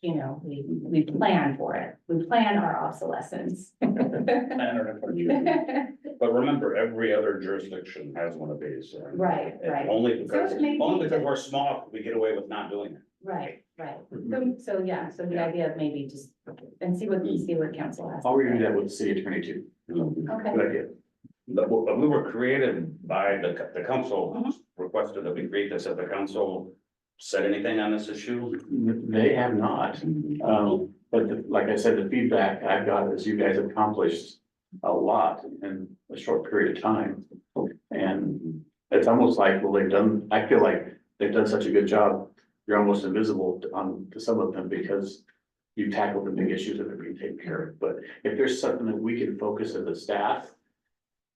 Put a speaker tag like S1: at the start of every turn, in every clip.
S1: you know, we, we plan for it. We plan our obsolescence.
S2: Manner of purchase.
S1: Right,
S2: But remember, every other jurisdiction has one of these. and- and
S1: right,
S2: Only because,
S1: So it may be
S2: only because
S1: that-
S2: we're small, we get away with not doing it.
S1: right, right. So, so, yeah, so the idea of maybe just, and see what, see what council has.
S3: I'll review that with the city attorney too.
S1: Okay.
S3: Good idea.
S2: But we, but we were created by the, co- the council
S1: Mhm.
S2: requested that we create this, if the council said anything on this issue.
S3: They have not, um, but the- like I said, the feedback I've got is you guys have accomplished a lot in a short period of time. And it's almost like, well, they've done, I feel like they've done such a good job, you're almost invisible to- on to some of them because you tackled the big issues that have been taken care of, but if there's something that we can focus as a staff,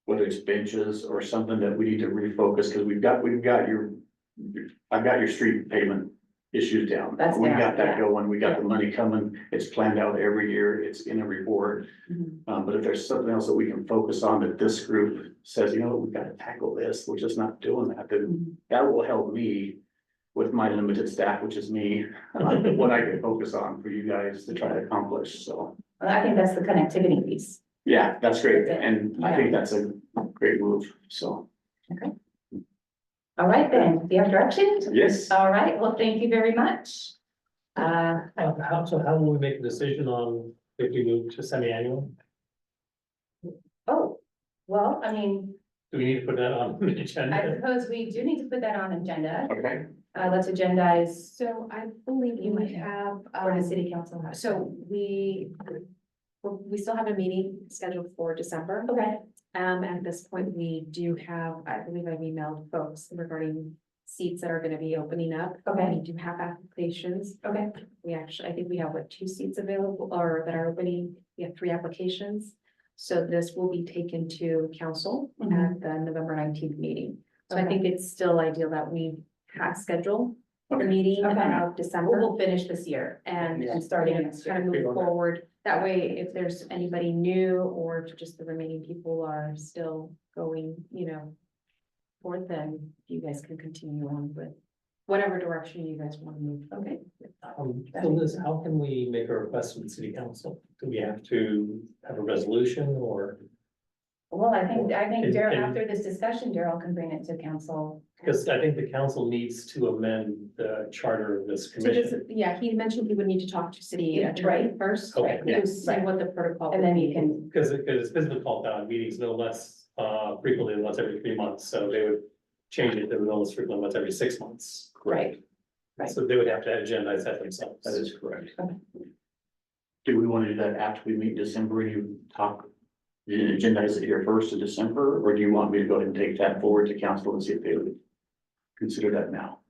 S3: whether it's benches or something that we need to refocus, because we've got, we've got your, I've got your street pavement issues down.
S1: That's
S3: We've
S1: down,
S3: got that
S1: yeah.
S3: going, we got the money coming, it's planned out every year, it's in a report.
S1: Mhm.
S3: Um, but if there's something else that we can focus on that this group says, you know, what, we've got to tackle this, we're just not doing that, then
S1: Mhm.
S3: that will help me with my limited staff, which is me, what I can focus on for you guys to try to accomplish, so.
S1: Well, I think that's the connectivity piece.
S3: Yeah, that's great, and I think that's a great move, so.
S1: All right, then, do you have directions?
S3: Yes.
S1: All right, well, thank you very much. Uh,
S4: Uh, How, so how will we make a decision on if we move to semi-annual?
S1: oh, well, I mean,
S4: Do we need to put that on the
S1: I
S4: agenda?
S1: suppose we do need to put that on agenda.
S3: Okay.
S1: Uh, let's agendize
S5: So I believe
S1: You might
S5: we have,
S1: for Mm-hmm. the
S5: um,
S1: city council. has-
S5: so we, we still have a meeting scheduled for December.
S1: Okay,
S5: Um, at this point, we do have, I believe I've emailed folks regarding seats that are gonna be opening up.
S1: okay,
S5: We do have applications.
S1: okay,
S5: We actually, I think we have what, two seats available or that are opening, we have three applications. So this will be taken to council
S1: Mhm.
S5: at the November nineteenth meeting. So I
S1: Okay.
S5: think it's still ideal that we have scheduled the
S3: Okay.
S5: meeting
S1: Okay.
S5: of December.
S1: we'll, we'll finish this year
S5: And
S1: and
S5: starting
S1: starting next year.
S5: kind of
S4: Big
S5: move
S4: one.
S5: forward. That way, if there's anybody new or if just the remaining people are still going, you know. Forth, then you guys can continue on with whatever direction you guys want to move.
S1: Okay.
S4: Um, so Liz, how can we make a request to the city council? Do we have to have a resolution or,
S1: Well, I think, I think
S4: And-
S1: Daryl,
S4: and-
S1: after this discussion, Daryl can bring it to council.
S4: because I think the council needs to amend the charter of this
S5: So this,
S4: commission.
S5: yeah, he mentioned he would need to talk to city
S1: Yeah,
S5: attorney
S1: right.
S5: first,
S4: Okay,
S1: yeah.
S5: to see what the protocol.
S1: And then you can,
S4: Because, because it's been called down meetings no less uh frequently than once every three months, so they would change it to no less frequently than once every six months.
S1: right, Right.
S4: So they would have to agendize that themselves.
S3: That is correct.
S1: Okay.
S3: Do we want to do that after we meet in December, you talk, you agendize it here first of December, or do you want me to go ahead and take that forward to council and see if they would consider that now?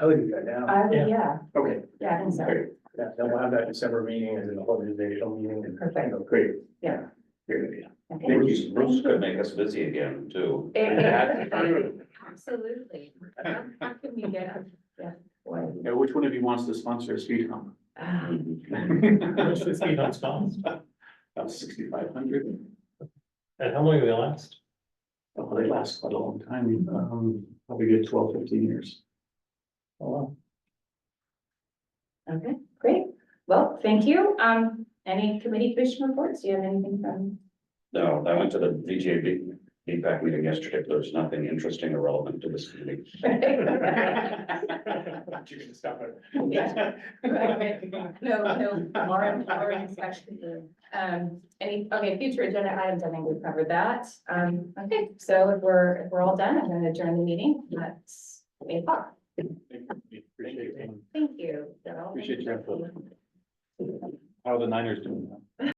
S6: I would do that now,
S1: I, would-
S4: Yeah.
S1: yeah,
S3: Okay,
S1: yeah, I think so.
S3: great,
S6: that, that we'll have that December meeting as an organizational meeting. Oh, and-
S1: Perfect.
S3: great.
S1: Yeah.
S3: Great idea.
S1: Okay.
S3: Thank
S2: Bruce,
S3: you.
S2: Bruce could make us busy again, too.
S1: Absolutely. How how can we get, yeah, boy.
S3: Now, which one of you wants to sponsor a speed hump?
S1: Ah,
S4: Which is being unstopped.
S3: About sixty-five hundred.
S4: And how long will they last?
S3: Oh, they last quite a long time, um, probably good 12, 15 years.
S4: Oh, wow.
S1: Okay, great. Well, thank you. Um, any committee commission reports? Do you have anything from?
S2: No, I went to the VGAB feedback meeting yesterday, but there's nothing interesting or relevant to this meeting.
S3: You're gonna stop it.
S1: Yeah. No, no, Lauren, Lauren inspection. Um, any, okay, future agenda items, I think we've covered that. Um, okay, so if we're, if we're all done, I'm gonna adjourn the meeting at eight o'clock.
S3: Appreciate it.
S1: Thank you. Daryl.
S3: Appreciate your input. How are the Niners doing?